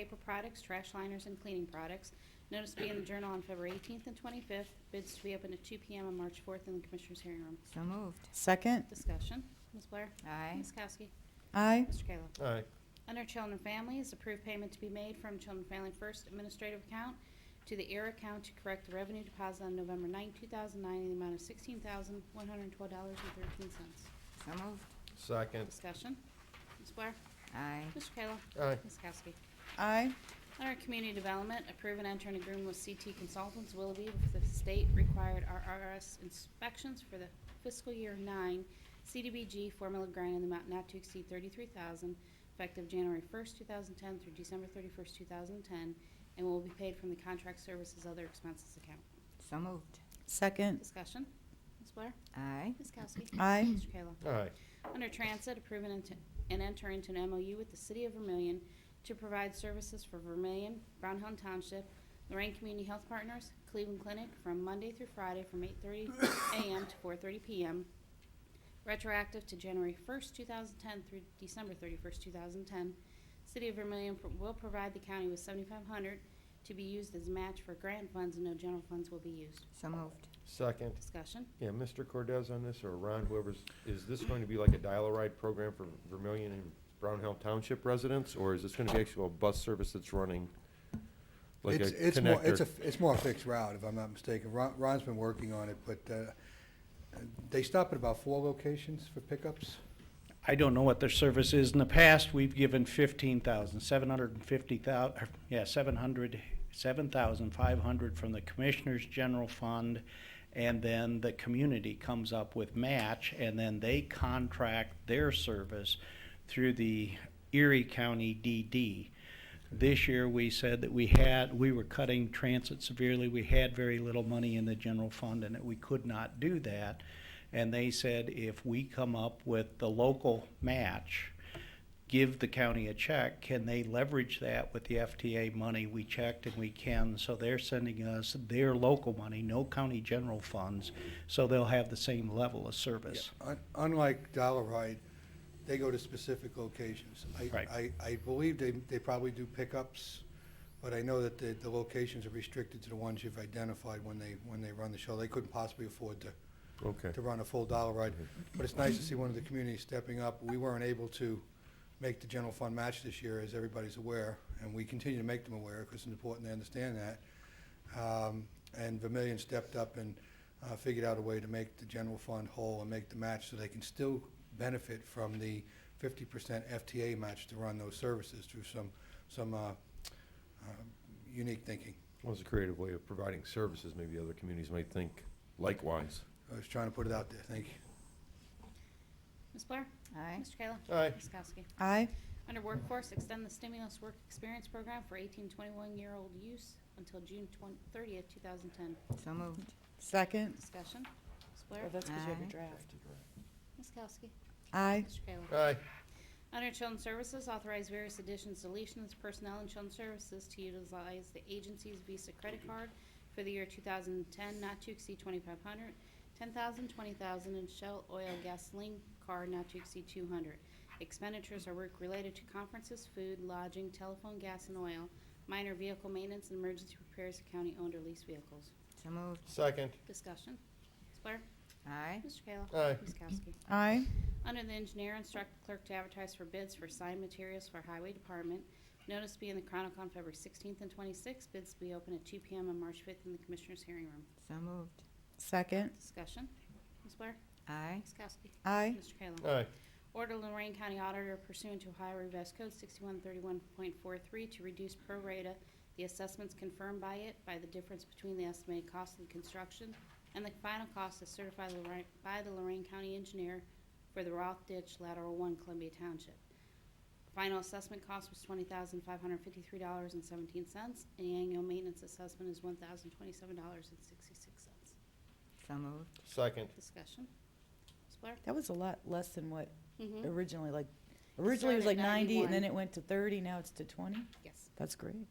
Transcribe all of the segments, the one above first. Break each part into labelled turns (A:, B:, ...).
A: paper products, trash liners, and cleaning products. Notice to be in the Journal on February 18th and 25th. Bids to be open at 2 PM on March 4th in the Commissioners' hearing room.
B: So moved.
C: Second.
A: Discussion. Ms. Blair?
B: Aye.
A: Ms. Kowski?
C: Aye.
A: Mr. Kayla?
D: aye,
A: Under Children and Families, approved payment to be made from Children and Family First Administrative Account to the ERA account to correct the revenue deposit on November 9, 2009, in the amount of $16,112.13.
B: So moved.
D: second,
A: Discussion. Ms. Blair?
B: Aye.
A: Mr. Kayla?
D: aye,
A: Ms. Kowski?
C: Aye.
A: Under Community Development, approve and enter an agreement with CT Consultants Willoughby for the state-required RRS inspections for the fiscal year nine CDBG formula grant in the amount not to exceed thirty-three thousand, effective January first, two thousand ten through December thirty-first, two thousand ten, and will be paid from the contract services other expenses account.
B: So moved.
C: Second.
A: Discussion. Ms. Blair?
B: Aye.
A: Ms. Kowski?
C: Aye.
A: Mr. Kayla?
D: aye,
A: Under Transit, approve and ent- and enter into an MOU with the City of Vermillion to provide services for Vermillion, Brown Hill Township, Lorraine Community Health Partners, Cleveland Clinic from Monday through Friday from 8:30 a.m. to 4:30 p.m., retroactive to January 1st, 2010 through December 31st, 2010. City of Vermillion pro- will provide the county with 7,500 to be used as match for grant funds, and no general funds will be used.
B: So moved.
D: second.
A: Discussion?
D: Yeah, Mr. Cordez on this, or Ron, whoever's, is this going to be like a dial-a-ride program for Vermillion and Brown Hill Township residents? Or is this gonna be actual bus service that's running? Like a
E: It's, it's more, it's a,
D: connector?
E: it's more a fixed route, if I'm not mistaken. Ron, Ron's been working on it, but, uh, they stop at about four locations for pickups.
F: I don't know what their service is. In the past, we've given fifteen thousand, seven hundred and fifty thousand, yeah, seven hundred, seven thousand five hundred from the Commissioners General Fund. And then the community comes up with match and then they contract their service through the Erie County DD. This year, we said that we had, we were cutting transit severely. We had very little money in the general fund and that we could not do that. And they said if we come up with the local match, give the county a check, can they leverage that with the FTA money? We checked and we can, so they're sending us their local money, no county general funds, so they'll have the same level of service.
E: Un- Unlike Dollar Ride, they go to specific locations. I-
F: Right.
E: I, I believe they, they probably do pickups, but I know that the, the locations are restricted to the ones you've identified when they, when they run the show. They couldn't possibly afford to,
D: Okay,
E: to run a full dollar ride. But it's nice to see one of the communities stepping up. We weren't able to make the general fund match this year, as everybody's aware, and we continue to make them aware because it's important they understand that. Um, And Vermillion stepped up and uh, figured out a way to make the general fund whole and make the match so they can still benefit from the fifty percent FTA match to run those services through some, some uh, um, unique thinking.
D: well, it's a creative way of providing services, maybe other communities might think likewise.
E: I was trying to put it out there. Thank you.
A: Ms. Blair?
B: Aye.
A: Mr. Kayla?
D: Aye.
A: Ms. Kowski?
C: Aye.
A: Under Workforce, extend the stimulus work experience program for 18, 21-year-old use until June 20 30th, 2010.
B: So moved.
C: Second.
A: Discussion. Ms. Blair?
C: that's
B: 'cause you have your Aye.
C: draft.
A: Ms. Kowski?
C: Aye.
A: Mr. Kayla?
D: Aye,
A: Under Children's Services, authorize various additions, deletions, personnel and Children's Services to utilize the agency's Visa credit card for the year 2010, not to exceed 2,500, 10,000, 20,000, and Shell Oil Gasoline Card not to exceed 200. Expenditures are work related to conferences, food, lodging, telephone, gas, and oil, minor vehicle maintenance, and emergency repairs of county-owned or leased vehicles.
B: So moved.
D: second,
A: Discussion. Ms. Blair?
B: Aye.
A: Mr. Kayla?
D: Aye.
A: Ms. Kowski?
C: Aye.
A: Under the engineer, instruct the clerk to advertise for bids for signed materials for highway department. Notice to be in the Chronicle on February 16th and 26th. Bids to be open at 2 PM on March 5th in the Commissioners' hearing room.
B: So moved.
C: Second.
A: Discussion. Ms. Blair?
B: Aye.
A: Ms. Kowski?
C: Aye.
A: Mr. Kayla?
D: aye,
A: Order Lorraine County Auditor pursuant to Ohio Revised Code 6131.43 to reduce pro rata the assessments confirmed by it by the difference between the estimated cost of the construction and the final cost as certified Lorraine- by the Lorraine County Engineer for the Roth Ditch Lateral 1 Columbia Township. Final assessment cost was $20,553.17, and the annual maintenance assessment is $1,027.66.
B: So moved.
D: second,
A: Discussion. Ms. Blair?
C: That was a lot less than what
A: Mm-hmm.
C: originally, like, originally it was like
A: started at
C: ninety, and then
A: 91.
C: it went to thirty, now it's to twenty?
A: Yes.
C: That's great.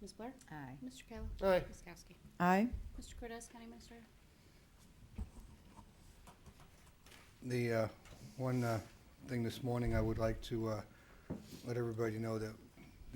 A: Ms. Blair?
B: Aye.
A: Mr. Kayla?
D: aye,
A: Ms. Kowski?
C: Aye.
A: Mr. Cortez, County Minister?
E: The uh, one uh, thing this morning, I would like to uh, let everybody know that